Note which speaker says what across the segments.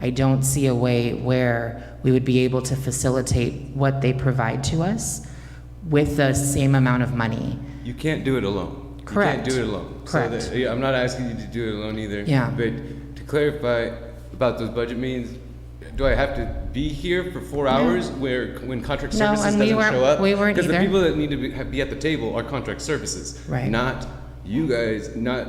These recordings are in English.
Speaker 1: I don't see a way where we would be able to facilitate what they provide to us with the same amount of money.
Speaker 2: You can't do it alone. You
Speaker 1: Correct.
Speaker 2: can't do it alone. So
Speaker 1: Correct.
Speaker 2: that- yeah, I'm not asking you to do it alone either.
Speaker 1: Yeah.
Speaker 2: But to clarify about those budget meetings, do I have to be here for four hours where, when contract
Speaker 1: No,
Speaker 2: services
Speaker 1: and
Speaker 2: doesn't
Speaker 1: we
Speaker 2: show
Speaker 1: weren't-
Speaker 2: up?
Speaker 1: we weren't
Speaker 2: Because the
Speaker 1: either.
Speaker 2: people that need to be, have- be at the table are contract services.
Speaker 1: Right.
Speaker 2: Not you guys, not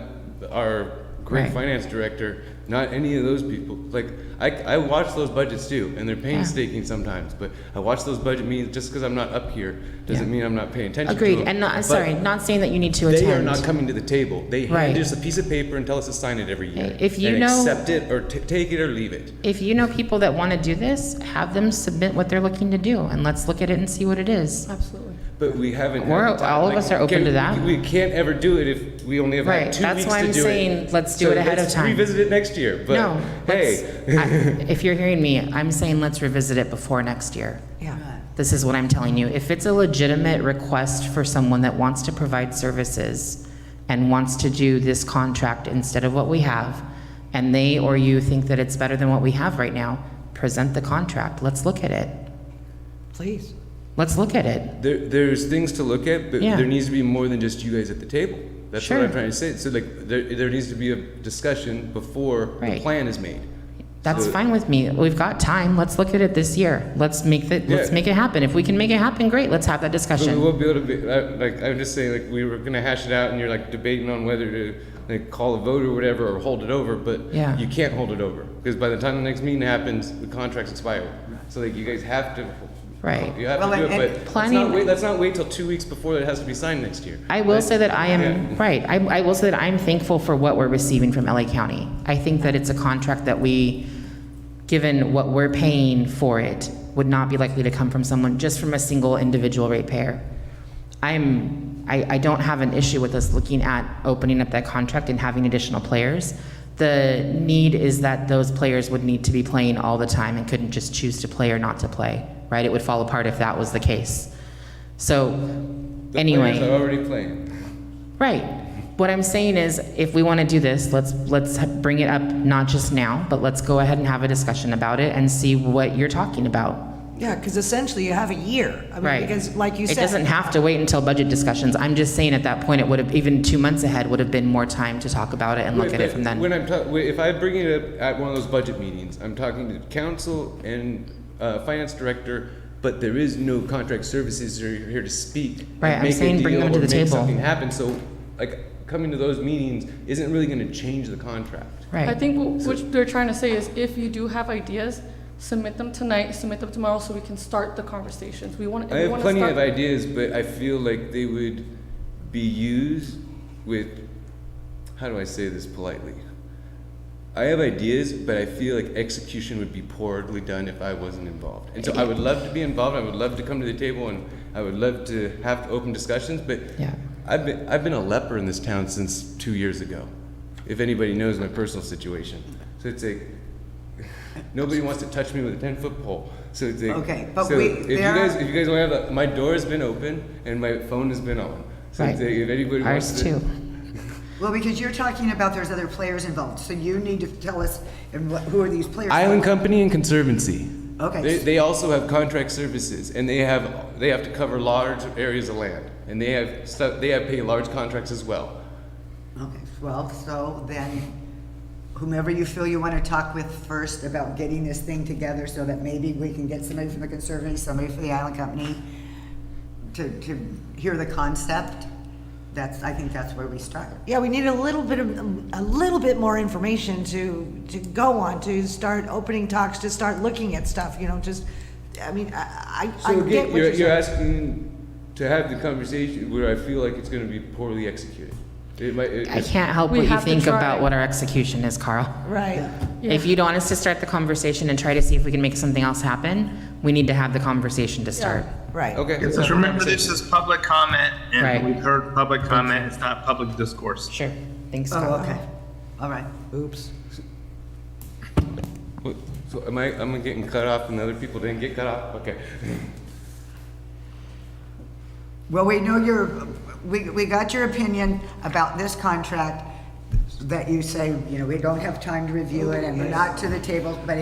Speaker 2: our great
Speaker 1: Right.
Speaker 2: finance director, not any of those people. Like, I, I watch those budgets too, and they're painstaking sometimes, but I watch those budget meetings, just because I'm not up here, doesn't
Speaker 1: Yeah.
Speaker 2: mean I'm not paying attention to
Speaker 1: Agreed,
Speaker 2: them.
Speaker 1: and
Speaker 2: But-
Speaker 1: not, sorry, not saying that you need to
Speaker 2: they are not
Speaker 1: attend.
Speaker 2: coming to the table. They
Speaker 1: Right.
Speaker 2: hand us a piece of paper and tell us to sign it every year.
Speaker 1: If you
Speaker 2: and
Speaker 1: know-
Speaker 2: accept it or t- take it or leave it.
Speaker 1: If you know people that want to do this, have them submit what they're looking to do, and let's look at it and see what it is.
Speaker 3: Absolutely.
Speaker 2: But we haven't. had
Speaker 1: We're-
Speaker 2: the time.
Speaker 1: all of us are open
Speaker 2: can-
Speaker 1: to that.
Speaker 2: We can't ever do it if we only have
Speaker 1: Right,
Speaker 2: had two
Speaker 1: that's
Speaker 2: weeks
Speaker 1: why
Speaker 2: to
Speaker 1: I'm
Speaker 2: do
Speaker 1: saying
Speaker 2: it.
Speaker 1: let's do
Speaker 2: So
Speaker 1: it ahead of
Speaker 2: let's
Speaker 1: time.
Speaker 2: Revisit it next year. But
Speaker 1: No, let's-
Speaker 2: hey,
Speaker 1: I- if you're hearing me, I'm saying let's revisit it before next year.
Speaker 3: Yeah.
Speaker 1: This is what I'm telling you. If it's a legitimate request for someone that wants to provide services and wants to do this contract instead of what we have, and they or you think that it's better than what we have right now, present the contract. Let's look at it.
Speaker 3: Please.
Speaker 1: Let's look at it.
Speaker 2: there, there's things to look at, but
Speaker 1: Yeah.
Speaker 2: there needs to be more than just you guys at the table. That's
Speaker 1: Sure.
Speaker 2: what I'm trying to say. So like, there, there needs to be a discussion before
Speaker 1: Right.
Speaker 2: the plan is made.
Speaker 1: That's
Speaker 2: So-
Speaker 1: fine with me. We've got time. Let's look at it this year. Let's make that, let's
Speaker 2: Yeah.
Speaker 1: make it happen. If we can make it happen, great. Let's have that
Speaker 2: But we
Speaker 1: discussion.
Speaker 2: won't be able to be, I- like, I'm just saying, like, we were gonna hash it out and you're like debating on whether to, like, call a vote or whatever, or hold it over, but
Speaker 1: Yeah.
Speaker 2: you can't hold it over, because by the time the next meeting happens, the contract's expired. So like, you guys have to,
Speaker 1: Right.
Speaker 2: you have
Speaker 3: Well,
Speaker 2: to do
Speaker 3: and-
Speaker 2: it,
Speaker 3: and
Speaker 2: but let's
Speaker 1: planning-
Speaker 2: not wait, let's not wait till two weeks before it has to be signed next year.
Speaker 1: I will say that I am,
Speaker 2: Yeah.
Speaker 1: right, I, I will say that I'm thankful for what we're receiving from LA County. I think that it's a contract that we, given what we're paying for it, would not be likely to come from someone, just from a single individual ratepayer. I'm, I, I don't have an issue with us looking at opening up that contract and having additional players. The need is that those players would need to be playing all the time and couldn't just choose to play or not to play, right? It would fall apart if that was the case. So,
Speaker 2: The
Speaker 1: anyway.
Speaker 2: players are already playing.
Speaker 1: Right. What I'm saying is, if we want to do this, let's, let's ha- bring it up, not just now, but let's go ahead and have a discussion about it and see what you're talking about.
Speaker 3: Yeah, because essentially you have a year. I mean,
Speaker 1: Right.
Speaker 3: Because like you
Speaker 1: It doesn't
Speaker 3: said,
Speaker 1: have to wait until budget discussions. I'm just saying at that point, it would have, even two months ahead, would have been more time to talk about it and look
Speaker 2: Wait,
Speaker 1: at it
Speaker 2: but
Speaker 1: from then.
Speaker 2: When I'm ta- wait, if I bring it up at one of those budget meetings, I'm talking to council and uh, finance director, but there is no contract services who are here to speak. and
Speaker 1: Right, I'm
Speaker 2: make a
Speaker 1: saying bring
Speaker 2: deal
Speaker 1: them to
Speaker 2: or
Speaker 1: the
Speaker 2: make
Speaker 1: table.
Speaker 2: Something happen, so like coming to those meetings isn't really going to change the contract.
Speaker 4: I
Speaker 1: Right.
Speaker 4: think what what they're trying to say is if you do have ideas, submit them tonight, submit them tomorrow so we can start the conversations. We want,
Speaker 2: I
Speaker 4: we
Speaker 2: have
Speaker 4: want to
Speaker 2: plenty
Speaker 4: start.
Speaker 2: of ideas, but I feel like they would be used with, how do I say this politely? I have ideas, but I feel like execution would be poorly done if I wasn't involved. And so I would love to be involved, I would love to come to the table, and I would love to have open discussions, but
Speaker 1: Yeah.
Speaker 2: I've been, I've been a leper in this town since two years ago, if anybody knows my personal situation. So it's like, nobody wants to touch me with a 10 foot pole. So it's like,
Speaker 3: Okay, but
Speaker 2: so
Speaker 3: we-
Speaker 2: if you
Speaker 3: there are-
Speaker 2: guys, if you guys want to have, a- my door's been open and my phone has been on. So
Speaker 1: Right.
Speaker 2: it's like, if anybody wants
Speaker 1: Ours
Speaker 2: to.
Speaker 1: too.
Speaker 5: Well, because you're talking about there's other players involved, so you need to tell us and what, who are these players?
Speaker 2: Island Company and Conservancy.
Speaker 5: Okay.
Speaker 2: They, they also have contract services and they have, they have to cover large areas of land. And they have stuff, they have pay large contracts as well.
Speaker 5: Okay, well, so then whomever you feel you want to talk with first about getting this thing together so that maybe we can get somebody from the Conservancy, somebody from the Island Company to, to hear the concept, that's, I think that's where we start.
Speaker 3: yeah, we need a little bit of, a little bit more information to, to go on, to start opening talks, to start looking at stuff, you know, just, I mean, I, I I
Speaker 2: So
Speaker 3: get
Speaker 2: again,
Speaker 3: what
Speaker 2: you're,
Speaker 3: you're
Speaker 2: you're
Speaker 3: saying.
Speaker 2: asking to have the conversation where I feel like it's gonna be poorly executed. It might, it-
Speaker 1: I
Speaker 2: it's-
Speaker 1: can't help
Speaker 4: We
Speaker 1: what you
Speaker 4: have to
Speaker 1: think
Speaker 4: try.
Speaker 1: about what our execution is, Carl.
Speaker 3: Right.
Speaker 1: If you'd want us to start the conversation and try to see if we can make something else happen, we need to have the conversation to start.
Speaker 3: Right.
Speaker 2: okay. let's have
Speaker 6: Just
Speaker 2: a
Speaker 6: remember,
Speaker 2: conversation.
Speaker 6: this is public comment,
Speaker 1: Right.
Speaker 6: and we've heard public comment, it's not public discourse.
Speaker 1: Sure. Thanks, Carl.
Speaker 5: Oh, okay, all right.
Speaker 3: Oops.
Speaker 2: What- So am I, am I getting cut off and the other people didn't get cut off? Okay.
Speaker 5: Well, we know your, we, we got your opinion about this contract that you say, you know, we don't have time to review it and we're not to the table, but